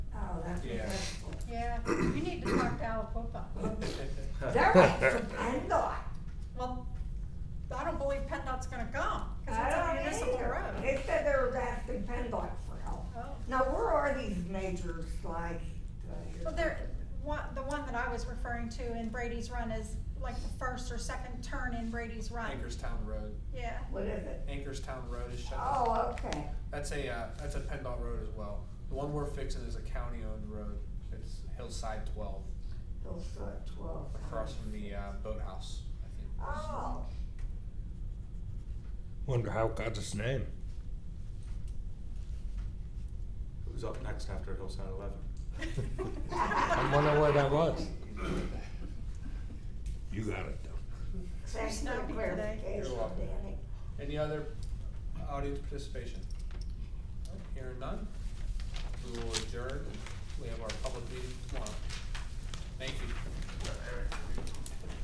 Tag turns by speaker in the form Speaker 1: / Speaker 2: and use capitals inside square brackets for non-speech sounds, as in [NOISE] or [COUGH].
Speaker 1: Oh, that's
Speaker 2: Yeah. [LAUGHS]
Speaker 1: acceptable.
Speaker 3: Yeah, you need to talk to Alapopa.
Speaker 1: They're like from PennDOT.
Speaker 3: Well, I don't believe PennDOT's gonna come, cause
Speaker 1: I
Speaker 3: it's a
Speaker 1: don't
Speaker 3: municipal
Speaker 1: either.
Speaker 3: road.
Speaker 1: They said they were asking PennDOT for help.
Speaker 3: Oh.
Speaker 1: Now, where are these majors like? uh, your-
Speaker 3: Well, there, one, the one that I was referring to in Brady's Run is like the first or second turn in Brady's Run.
Speaker 2: Anchorstown Road,
Speaker 3: Yeah,
Speaker 1: What is it?
Speaker 2: Anchorstown Road is shut down.
Speaker 1: Oh, okay.
Speaker 2: That's a, uh, that's a PennDOT road as well. The one we're fixing is a county-owned road. It's Hillside Twelve,
Speaker 1: Those uh, twelve.
Speaker 2: across from the, uh, boathouse, I think.
Speaker 1: Oh,
Speaker 4: Wonder how it got its [LAUGHS] name.
Speaker 5: Who's up next after Hillside Eleven?
Speaker 4: I'm wondering where that was. You got it though.
Speaker 1: thanks for
Speaker 3: Snappy
Speaker 1: the
Speaker 3: today.
Speaker 1: clarification,
Speaker 2: You're welcome.
Speaker 1: Danny.
Speaker 2: Any other audience participation? Hearing none, we will adjourn